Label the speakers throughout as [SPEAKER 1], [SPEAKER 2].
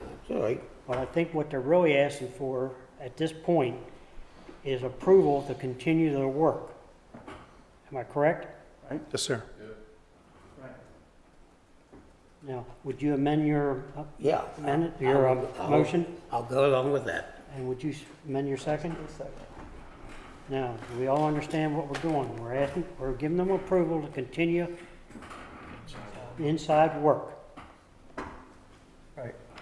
[SPEAKER 1] It's all right.
[SPEAKER 2] But I think what they're really asking for at this point is approval to continue their work. Am I correct?
[SPEAKER 3] Yes, sir.
[SPEAKER 2] Now, would you amend your uh,
[SPEAKER 1] Yeah.
[SPEAKER 2] amendment, your um,
[SPEAKER 1] I'll-
[SPEAKER 2] motion?
[SPEAKER 1] I'll go along with that.
[SPEAKER 2] And would you s- amend your second? Now, do we all understand what we're doing? We're asking, we're giving them approval to continue inside work.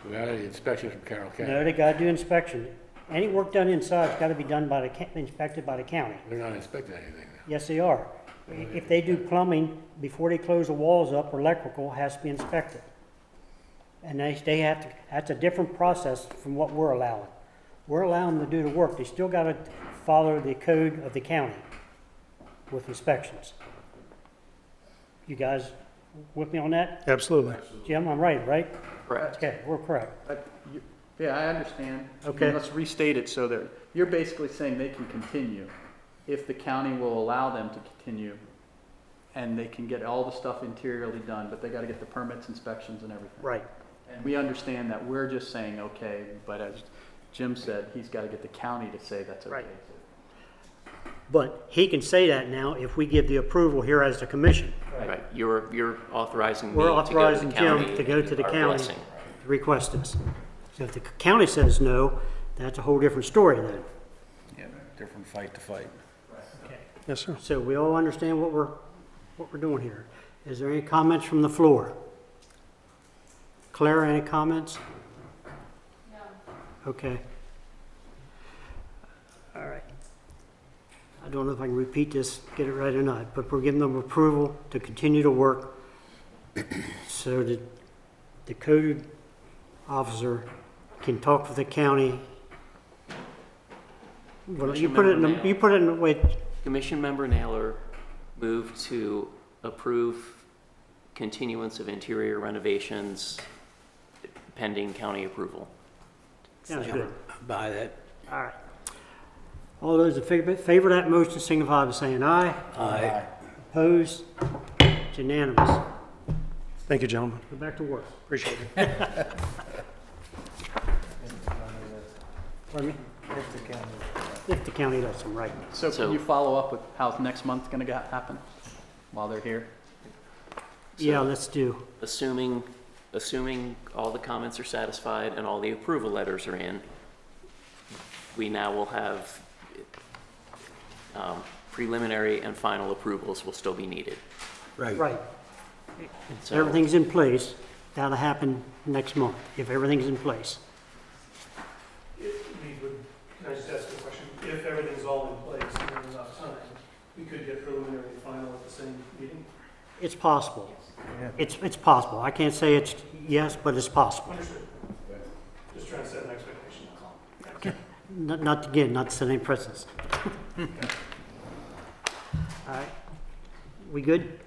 [SPEAKER 4] Without any inspection from Carroll County.
[SPEAKER 2] No, they gotta do inspection. Any work done inside's gotta be done by the, ca- inspected by the county.
[SPEAKER 4] They're not inspecting anything.
[SPEAKER 2] Yes, they are. I- If they do plumbing, before they close the walls up, or electrical has to be inspected. And they, they have to, that's a different process from what we're allowing. We're allowing them to do the work, they still gotta follow the code of the county with inspections. You guys with me on that?
[SPEAKER 3] Absolutely.
[SPEAKER 2] Jim, I'm right, right?
[SPEAKER 5] Correct.
[SPEAKER 2] Okay, we're correct.
[SPEAKER 5] But you- Yeah, I understand. I mean,
[SPEAKER 2] Okay.
[SPEAKER 5] Let's restate it so that, you're basically saying they can continue if the county will allow them to continue. And they can get all the stuff interiorly done, but they gotta get the permits, inspections and everything.
[SPEAKER 2] Right.
[SPEAKER 5] And we understand that we're just saying, okay, but as Jim said, he's gotta get the county to say that's okay.
[SPEAKER 2] Right. But he can say that now if we give the approval here as the commission.
[SPEAKER 6] Right, you're, you're authorizing me to
[SPEAKER 2] We're
[SPEAKER 6] go to the county.
[SPEAKER 2] authorizing Jim to go to the
[SPEAKER 6] our
[SPEAKER 2] county to
[SPEAKER 6] blessing.
[SPEAKER 2] request this. So if the county says no, that's a whole different story then.
[SPEAKER 4] Yeah, different fight to fight.
[SPEAKER 3] Yes, sir.
[SPEAKER 2] So we all understand what we're, what we're doing here. Is there any comments from the floor? Claire, any comments? No. Okay. All right. I don't know if I can repeat this, get it right or not, but we're giving them approval to continue to work so that the code officer can talk with the county. Well, you put it in, the- you put it in, the way.
[SPEAKER 6] Commission Member Naylor moved to approve continuance of interior renovations pending county approval.
[SPEAKER 2] Sounds good.
[SPEAKER 1] Buy that.
[SPEAKER 2] All right. All those in favor, favor of that motion signify by saying aye.
[SPEAKER 1] Aye.
[SPEAKER 2] Opposed? It's unanimous.
[SPEAKER 3] Thank you, gentlemen.
[SPEAKER 2] Go back to work.
[SPEAKER 3] Appreciate it.
[SPEAKER 2] Pardon me? If the county lets them, right.
[SPEAKER 5] So
[SPEAKER 6] So-
[SPEAKER 5] can you follow up with how next month's gonna go- happen while they're here?
[SPEAKER 2] Yeah, let's do.
[SPEAKER 6] Assuming, assuming all the comments are satisfied and all the approval letters are in, we now will have um, preliminary and final approvals will still be needed.
[SPEAKER 1] Right.
[SPEAKER 2] Right.
[SPEAKER 6] So-
[SPEAKER 2] Everything's in place. That'll happen next month, if everything's in place.
[SPEAKER 7] If we would, can I just ask a question? If everything's all in place and there's enough time, we could get preliminary and final at the same meeting?
[SPEAKER 2] It's possible. It's, it's possible. I can't say it's yes, but it's possible.
[SPEAKER 7] Understood. Just trying to set an expectation.
[SPEAKER 2] Not, not again, not setting precedents. All right. We good?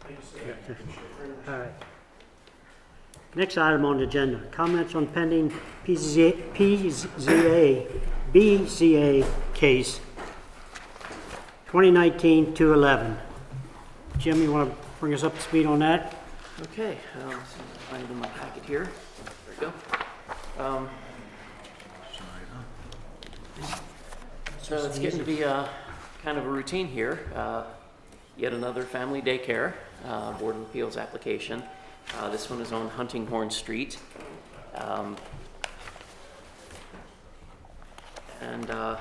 [SPEAKER 7] Thank you, sir. Appreciate it very much.
[SPEAKER 2] All right. Next item on the agenda, comments on pending PZA, PZA, BZA case 2019-211. Jim, you want to bring us up to speed on that?
[SPEAKER 6] Okay, um, so I'll find it in my packet here. There we go. Um, So it's getting to be uh, kind of a routine here. Uh, Yet another family daycare uh, Board of Appeals application. Uh, This one is on Huntinghorn Street. Um, And uh,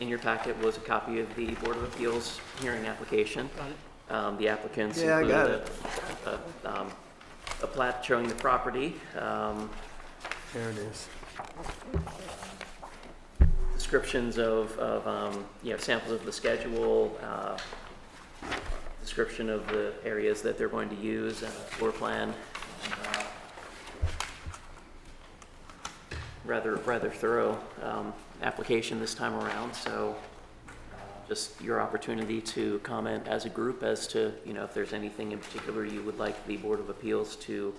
[SPEAKER 6] in your packet was a copy of the Board of Appeals hearing application. Um, The applicants
[SPEAKER 5] Yeah, I
[SPEAKER 6] included
[SPEAKER 5] got
[SPEAKER 6] a- a, um, a plat showing the property, um,
[SPEAKER 5] There it is.
[SPEAKER 6] descriptions of, of, um, you know, samples of the schedule, uh, description of the areas that they're going to use, and a floor plan. uh, Rather, rather thorough, um, application this time around, so uh, just your opportunity to comment as a group as to, you know, if there's anything in particular you would like the Board of Appeals to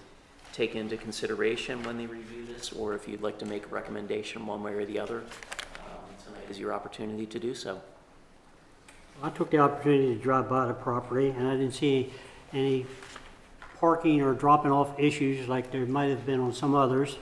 [SPEAKER 6] take into consideration when they review this, or if you'd like to make a recommendation one way or the other, um, tonight is your opportunity to do so.
[SPEAKER 2] I took the opportunity to drive by the property, and I didn't see any parking or dropping off issues like there might have been on some others.